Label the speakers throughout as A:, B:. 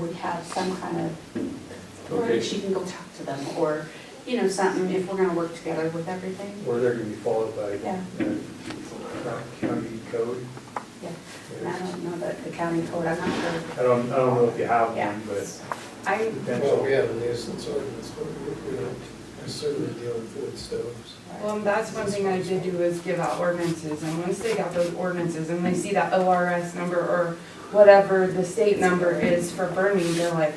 A: we have some kind of, or
B: Okay.
A: she can go talk to them, or, you know, something, if we're gonna work together with everything.
B: Or they're gonna be followed by
A: Yeah,
B: uh, county code.
A: yeah, and I don't know that the county code, I'm not sure.
B: I don't, I don't know if you have
A: Yeah.
C: Um,
B: one, but
A: I,
D: Well, we
B: potential.
D: have a nuisance ordinance, but we don't necessarily deal with wood stoves.
E: Well, and that's one thing I did do is give out ordinances, and once they got those ordinances and they see that ORS number or whatever the state number is for burning, they're like,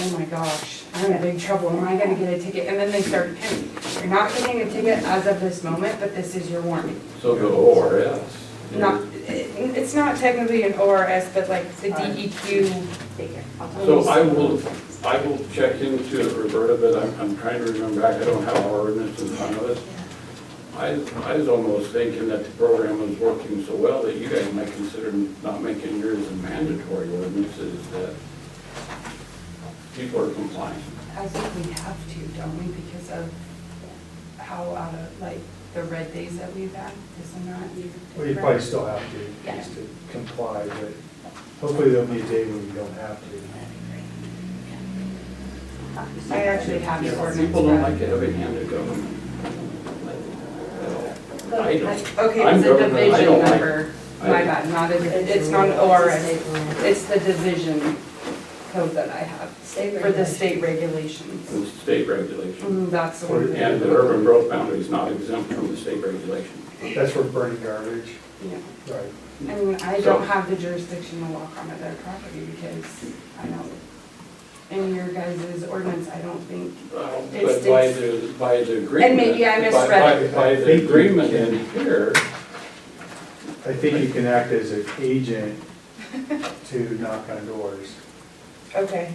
E: oh my gosh, I'm in big trouble, am I gonna get a ticket? And then they start panicking. You're not getting a ticket as of this moment, but this is your warning.
C: So go ORS.
E: Not, it- it's not technically an ORS, but like the E DEQ,
A: figure, I'll talk.
C: So I will, I will check into it, Roberta, but I'm, I'm trying to remember back, I don't have our ordinance in front of us. I, I was almost thinking that the program was working so well that you guys might consider not making yours a mandatory ordinance is that people are compliant.
E: I think we have to, don't we, because of how out of, like, the red days that we've had, isn't that?
B: Well, you probably still have to,
A: Yeah.
B: just to comply, but hopefully there'll be a day when you don't have to.
A: Uh,
E: I actually have the ordinance.
C: People don't
E: but-
C: like a heavy-handed government. Like, at all. I don't.
E: Okay,
C: I'm
E: it's a
C: government, I
E: division
C: don't like-
E: number, my
C: I-
E: bad, not a, it's not an ORS. It's the division code that I have
F: State
E: for the state regulations.
C: It's state regulation.
E: Mm, That's the one.
C: And the urban growth boundary is not exempt from the state regulation.
B: That's for burning garbage.
E: Yeah.
B: Right.
E: I mean, I don't have the jurisdiction to walk onto their property because I don't, in your guys' ordinance, I don't think,
C: Well,
E: It's-
C: Um, But by the, by the agreement.
E: And maybe I
C: by-
E: misread
C: by- By the agreement in here,
B: I think you can act as an agent to knock on doors.
E: okay.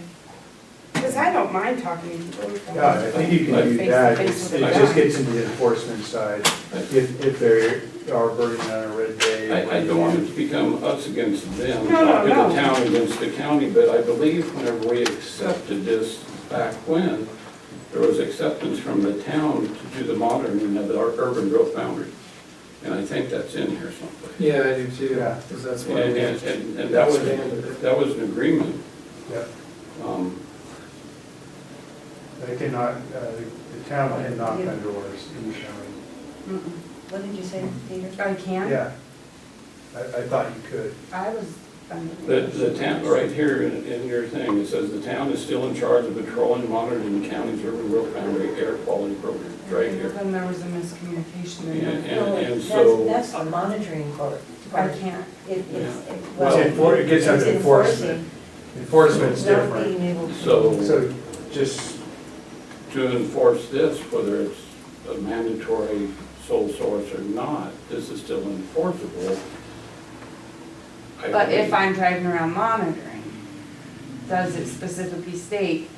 E: Because I don't mind talking to people.
B: Yeah, I think you can do
E: Face to
B: that,
E: face
B: It's-
E: with
B: it
E: the
B: just
E: guy.
B: gets into the enforcement side, if, if they are burning on a red day.
C: I, I don't want it to become us against them,
E: No, no,
C: talking the
E: no.
C: town against the county, but I believe whenever we accepted this back when, there was acceptance from the town to do the monitoring of our urban growth boundary. And I think that's in here someplace.
D: Yeah, I do too,
B: Yeah.
D: because that's
C: And,
D: what.
C: and- and, and that was, that was an agreement.
B: Yep.
C: Um,
B: They cannot, uh, the- the town can knock on doors in the county.
E: Mm-mm.
F: What did you say, Peter?
E: I can?
B: Yeah, I, I thought you could.
E: I was.
C: The, the town, right here in, in your thing, it says the town is still in charge of patrolling, monitoring the county's urban growth boundary air quality program, right here.
E: Then there was a miscommunication
C: And,
E: in there.
F: No,
C: and, and
F: that's-
C: so,
F: That's the monitoring part.
E: I can't.
F: It- It's, it-
B: It's
F: well,
B: enfor, it gets
F: it's
B: under enforcement.
F: enforcing,
B: Enforcement's
F: not
B: different.
F: being able to.
C: so
B: So just,
C: to enforce this, whether it's a mandatory sole source or not, this is still enforceable. I
E: But if
C: believe.
E: I'm driving around monitoring, does it specifically state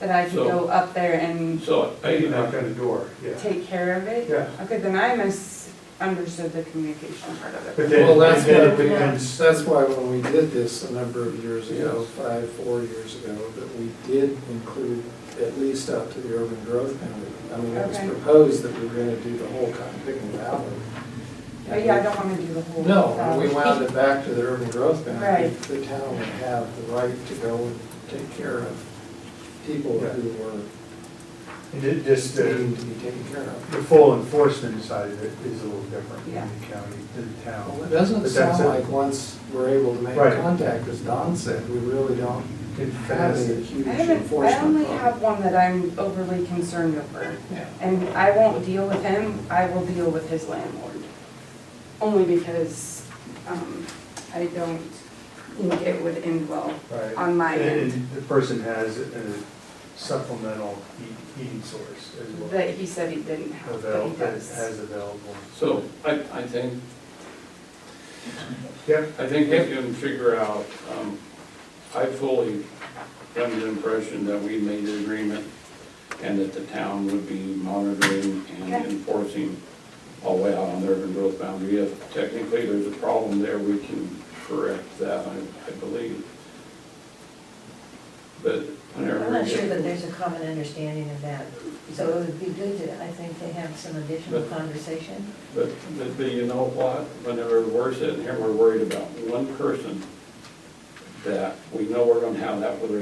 E: that I can
C: So-
E: go up there and
C: So
B: you knock
C: I,
B: on the door, yeah.
E: take care of it?
B: Yeah.
E: Okay, then I misunderstood the communication part of
B: But
E: it.
B: then,
D: Well, that's
B: then it
D: what-
B: becomes,
D: That's why when we did this a number of years ago, five, four years ago, that we did include at least up to the urban growth boundary. I mean, it was
E: Okay.
D: proposed that we were gonna do the whole Cotton Picking Valley.
E: But yeah, I don't wanna do the whole.
D: No, when we wound it back to the urban growth boundary.
E: Right.
D: The town would have the right to go and take care of people who were
B: and it just, uh,
D: needing to be taken care of.
B: the full enforcement side of it is a little different in
E: Yeah.
B: the county, than the
D: Well,
B: town.
D: it
B: But
D: doesn't
B: that's
D: sound
B: it.
D: like once we're able to make
B: Right.
D: contact, as Don said, we really don't
B: It
D: have
B: fast,
D: a huge
E: I haven't, I only
D: enforcement
E: have
D: problem.
E: one that I'm overly concerned over.
D: Yeah.
E: And I won't deal with him, I will deal with his landlord. Only because, um, I don't think it would end well
B: right?
E: on my
B: And-
E: end.
B: and The person has a supplemental heat- heating source as well,
E: That he said he didn't have, but he
B: available, that
E: does.
B: has available.
C: so I, I think
B: Yep,
C: I think we can figure out, um, I fully am the impression that we made an agreement and that the town would be monitoring and
E: Okay.
C: enforcing all the way out on the urban growth boundary. If technically there's a problem there, we can correct that, I, I believe. But whenever.
F: I'm
C: we
F: not
C: get-
F: sure that there's a common understanding of that, so it would be good to, I think, to have some additional conversation.
C: But, but but you know what, whenever we're sitting here, we're worried about one person that we know we're gonna have that, whether